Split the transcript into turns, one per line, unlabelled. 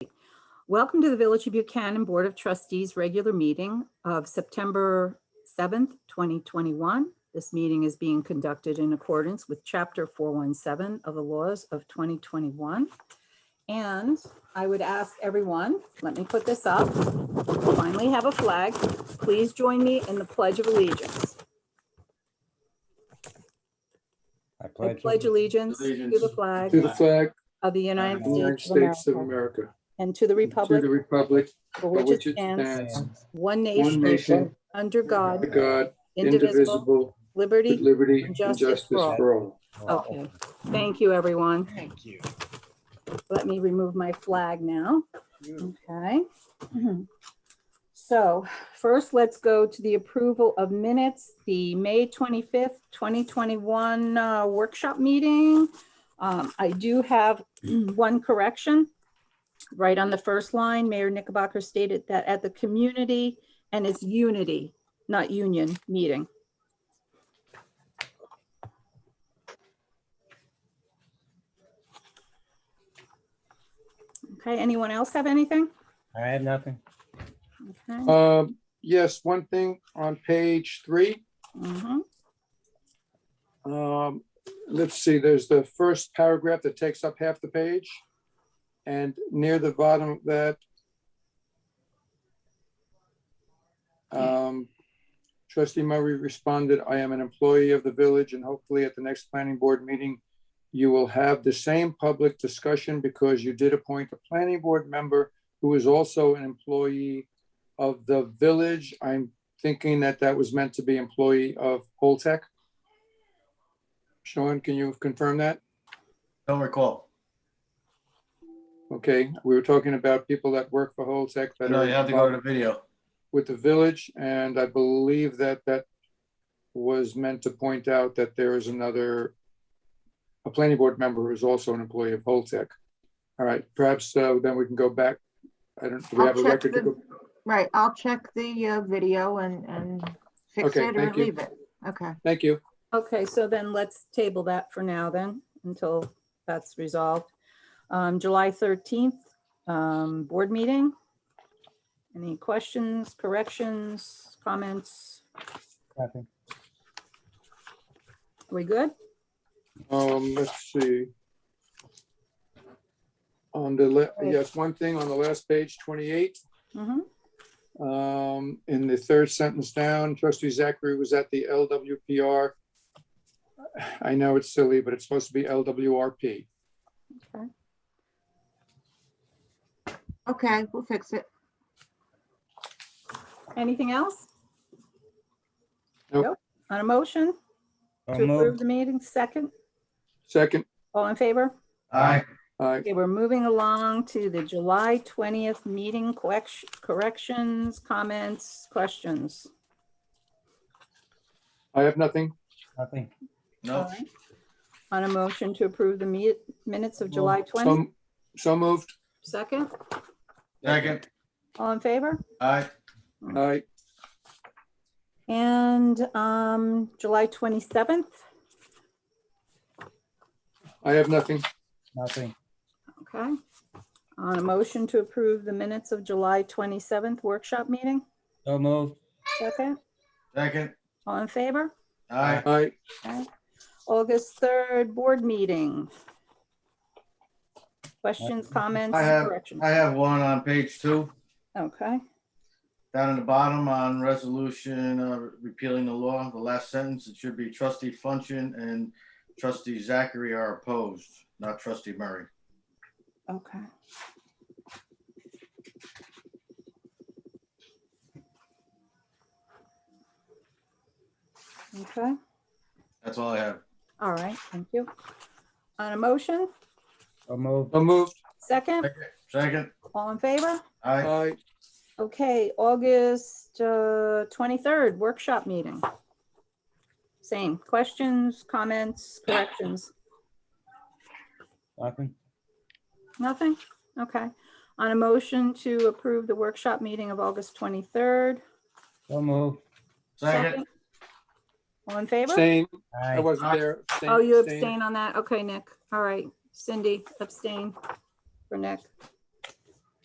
Welcome to the Village of Buchanan Board of Trustees Regular Meeting of September 7th, 2021. This meeting is being conducted in accordance with Chapter 417 of the laws of 2021. And I would ask everyone, let me put this up, finally have a flag. Please join me in the Pledge of Allegiance.
I
I
pledge.
pledge allegiance to the
Allegiance.
flag
To the flag
of the
of
United
the United
States of America
America.
and to the
To the
republic
republic,
for
for
which it stands,
stands,
one
one
nation,
nation,
under
under
God,
God,
indivisible,
indivisible, with
liberty.
liberty
and
and
justice
justice
for all.
for all.
Oh, Okay, thank you, everyone.
Thank you.
Let me remove my flag now. Okay. So first, let's go to the approval of minutes, the May 25th, 2021 uh, workshop meeting. Um, I do have one correction. Right on the first line, Mayor Knickerbocker stated that at the community and it's unity, not union meeting. Okay, anyone else have anything?
I have nothing.
Okay.
Um, Yes, one thing on page three,
mhm.
um, let's see, there's the first paragraph that takes up half the page. And near the bottom of that, um, trustee Murray responded, I am an employee of the village and hopefully at the next planning board meeting, you will have the same public discussion because you did appoint a planning board member who is also an employee of the village. I'm thinking that that was meant to be employee of Holtec. Sean, can you confirm that?
Don't recall.
Okay, we were talking about people that work for Holtec that
No, you have to go
are
to the video.
with the village, and I believe that that was meant to point out that there is another, a planning board member who is also an employee of Holtec. All right, perhaps uh, then we can go back. I don't, do we
I'll
have a
check
record to
the-
go?
Right, I'll check the uh, video and, and fix
Okay,
it or
thank you.
leave it. Okay,
Thank you.
Okay, so then let's table that for now then, until that's resolved. Um, July 13th, um, board meeting. Any questions, corrections, comments?
Nothing.
We good?
Um, let's see. On the, le- yes, one thing on the last page, 28.
Mhm.
Um, in the third sentence down, trustee Zachary was at the LWPR. I know it's silly, but it's supposed to be LWRP.
okay, we'll fix it.
Anything else?
Nope.
Nope. On a motion
So
to approve
moved.
the meeting, second,
Second,
all in favor?
Aye.
I,
Okay, we're moving along to the July 20th meeting correc- corrections, comments, questions.
I have nothing.
Nothing.
All
No,
right. On a motion to approve the mi- minutes
Oh,
of July 20,
So, so moved.
second,
second.
all in favor?
Aye.
I,
And um, July 27th,
I have nothing.
Nothing.
okay. On a motion to approve the minutes of July 27th workshop meeting,
So moved.
second,
Second.
all in favor?
Aye.
I,
Okay. August 3rd, board meeting. Questions, comments,
I have-
corrections?
I have one on page two,
Okay,
down at the bottom on resolution uh, repealing the law, the last sentence, it should be trustee function and trustee Zachary are opposed, not trustee Murray.
okay. Okay.
That's all I have.
All right, thank you. On a motion,
So moved.
so moved.
second,
Second.
all in favor?
Aye.
I,
Okay, August uh, 23rd, workshop meeting. Same, questions, comments, corrections,
Nothing.
nothing? Okay. On a motion to approve the workshop meeting of August 23rd.
So moved.
Second.
All in favor?
abstain. I
Aye.
wasn't there. Abstain,
Oh, you
abstain.
abstain on that? Okay, Nick. All right. Cindy, abstain for Nick.